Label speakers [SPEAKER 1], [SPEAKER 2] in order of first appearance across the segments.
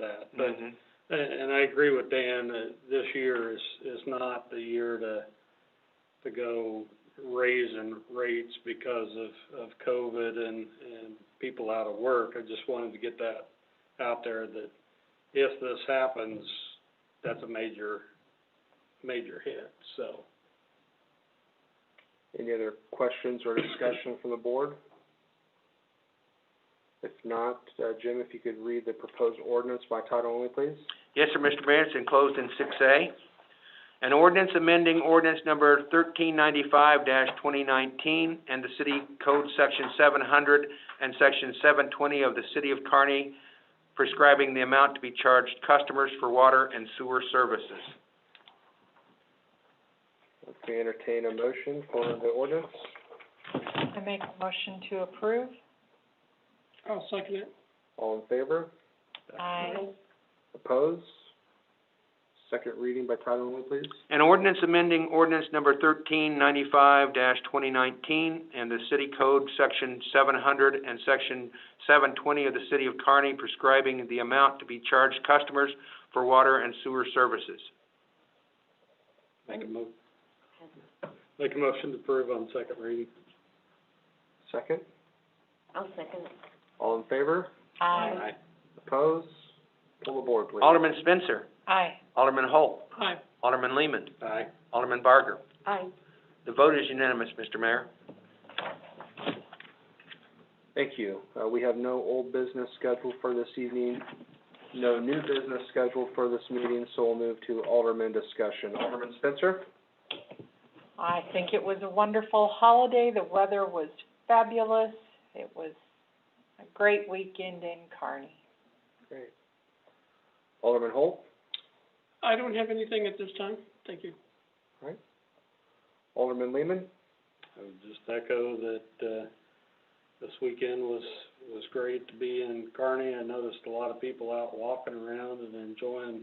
[SPEAKER 1] Mm-hmm.
[SPEAKER 2] but,
[SPEAKER 3] Mm-hmm.
[SPEAKER 2] and, and I agree with Dan, that this year is, is not the year to, to go raising rates because of, of COVID and, and people out of work. I just wanted to get that out there, that if this happens, that's a major, major hit, so.
[SPEAKER 1] Any other questions or discussion from the board? If not, uh, Jim, if you could read the proposed ordinance by title only, please.
[SPEAKER 3] Yes, sir, Mr. Mayor, it's enclosed in six A. An ordinance amending ordinance number thirteen ninety-five twenty nineteen and the city code section seven hundred and section seven twenty of the city of Kearney prescribing the amount to be charged customers for water and sewer services.
[SPEAKER 1] If we entertain a motion for the ordinance,
[SPEAKER 4] I make a motion to approve.
[SPEAKER 2] I'll second it.
[SPEAKER 1] all in favor?
[SPEAKER 4] Aye.
[SPEAKER 1] Opposed? Second reading by title only, please.
[SPEAKER 3] An ordinance amending ordinance number thirteen ninety-five twenty nineteen and the city code section seven hundred and section seven twenty of the city of Kearney prescribing the amount to be charged customers for water and sewer services.
[SPEAKER 2] Make a mo- make a motion to approve on second reading.
[SPEAKER 1] Second,
[SPEAKER 4] I'll second.
[SPEAKER 1] all in favor?
[SPEAKER 4] Aye.
[SPEAKER 1] Opposed? Pull the board, please.
[SPEAKER 3] Alderman Spencer,
[SPEAKER 4] Aye.
[SPEAKER 3] Alderman Holt,
[SPEAKER 2] Aye.
[SPEAKER 3] Alderman Lehman,
[SPEAKER 2] Aye.
[SPEAKER 3] Alderman Barker.
[SPEAKER 4] Aye.
[SPEAKER 3] The vote is unanimous, Mr. Mayor.
[SPEAKER 1] Thank you. Uh, we have no old business scheduled for this evening, no new business scheduled for this meeting, so we'll move to alderman discussion. Alderman Spencer?
[SPEAKER 4] I think it was a wonderful holiday. The weather was fabulous. It was a great weekend in Kearney.
[SPEAKER 1] Great. Alderman Holt?
[SPEAKER 2] I don't have anything at this time, thank you.
[SPEAKER 1] Alderman Lehman?
[SPEAKER 2] I would just echo that, uh, this weekend was, was great to be in Kearney. I noticed a lot of people out walking around and enjoying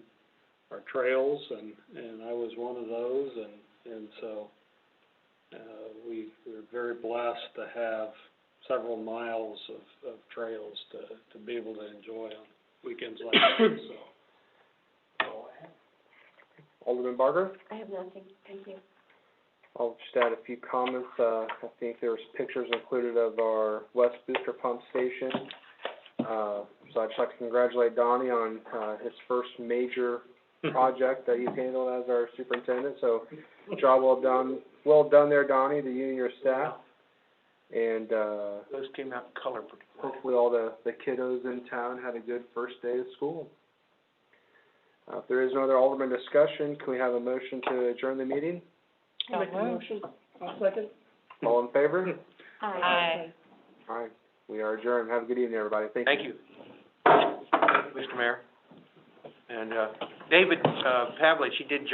[SPEAKER 2] our trails and, and I was one of those and, and so, uh, we, we're very blessed to have several miles of, of trails to, to be able to enjoy on weekends like this, so.
[SPEAKER 1] Alderman Barker?
[SPEAKER 4] I have nothing, thank you.
[SPEAKER 1] I'll just add a few comments. Uh, I think there was pictures included of our West Booster Pump Station. Uh, so I'd just like to congratulate Donnie on, uh, his first major project that you've handled as our superintendent, so job well done. Well done there, Donnie, to you and your staff. And, uh,
[SPEAKER 3] Those came out in color pretty well.
[SPEAKER 1] hopefully all the, the kiddos in town had a good first day of school. Uh, if there is no other Alderman discussion, can we have a motion to adjourn the meeting?
[SPEAKER 4] So moved.
[SPEAKER 1] All in favor?
[SPEAKER 4] Aye.
[SPEAKER 1] All right, we are adjourned. Have a good evening, everybody. Thank you.
[SPEAKER 3] Thank you. Thank you, Mr. Mayor. And, uh, David, uh, Pavlich, he did join